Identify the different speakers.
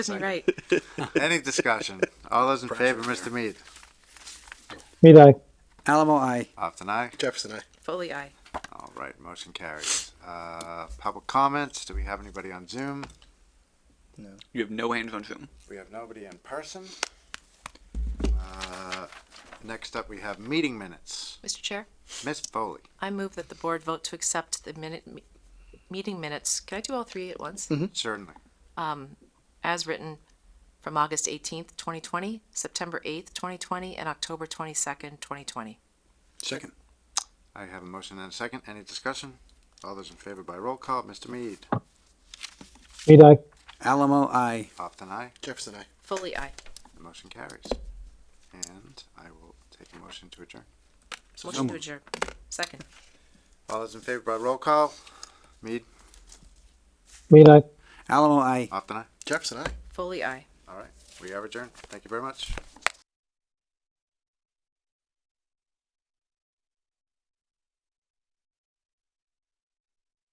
Speaker 1: Isn't right.
Speaker 2: Any discussion? All those in favor, Mr. Mead?
Speaker 3: Mead aye.
Speaker 4: Alamo, I.
Speaker 2: After aye.
Speaker 5: Jefferson, I.
Speaker 1: Foley, aye.
Speaker 2: All right, motion carries. Uh, public comments, do we have anybody on Zoom?
Speaker 6: You have no hands on Zoom.
Speaker 2: We have nobody in person. Uh, Next up, we have meeting minutes.
Speaker 7: Mr. Chair,
Speaker 2: Ms. Foley,
Speaker 7: I move that the board vote to accept the minute, me- meeting minutes, can I do all three at once?
Speaker 2: Mm-hmm.
Speaker 7: Um,
Speaker 2: certainly.
Speaker 7: As written from August 18th, 2020, September 8th, 2020, and October 22nd, 2020.
Speaker 4: Second.
Speaker 2: I have a motion and a second. Any discussion? All those in favor by roll call, Mr. Mead?
Speaker 3: Mead aye.
Speaker 4: Alamo, I.
Speaker 2: After aye.
Speaker 5: Jefferson, I.
Speaker 1: Foley, aye.
Speaker 2: The motion carries. And I will take a motion to adjourn.
Speaker 7: Motion to
Speaker 4: moved.
Speaker 7: adjourn. Second.
Speaker 2: All those in favor by roll call, Mead?
Speaker 3: Mead aye.
Speaker 4: Alamo, I.
Speaker 2: After aye.
Speaker 5: Jefferson, I.
Speaker 1: Foley, aye.
Speaker 2: All right, we are adjourned. Thank you very much.